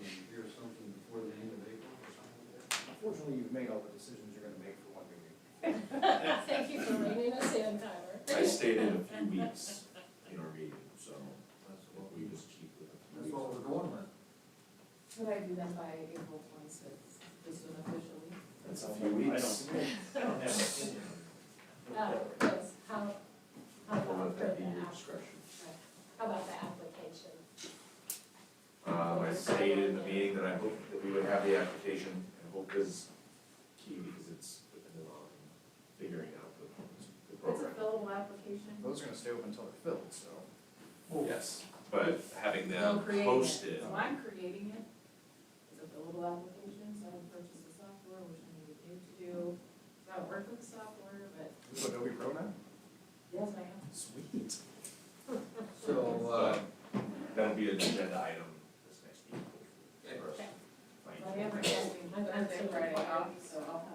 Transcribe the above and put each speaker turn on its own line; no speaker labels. Fortunately, you've made all the decisions you're gonna make for one meeting.
Thank you for reading us in, Tyler.
I stayed in a few weeks in our meeting, so if we just keep with it.
That's what we're going with.
Could I do that by April twenty-sixth, just unofficially?
That's a few weeks.
I don't have an opinion.
Uh, yes, how, how
We'll
about
let
for
that
the,
be your
app-
discretion.
how about the application?
Um, I stated in the meeting that I hope that we would have the application, and hope is key because it's dependent on figuring out the, the
It's a
program.
fillable application.
Those are gonna stay open until they're filled, so.
Yes, but having
No,
them
creating it.
posted,
So I'm creating it. It's a billable application, so I would purchase the software, which I need to pay to do. So I work with the software, but
Is Adobe Pro now?
yes, I am.
Sweet. So, uh,
but that'll be an agenda item this next meeting. hopefully, for us to
Okay.
find.
So I am recording.
I'm- I'm
Thursday,
still
Friday
required.
off, so I'll have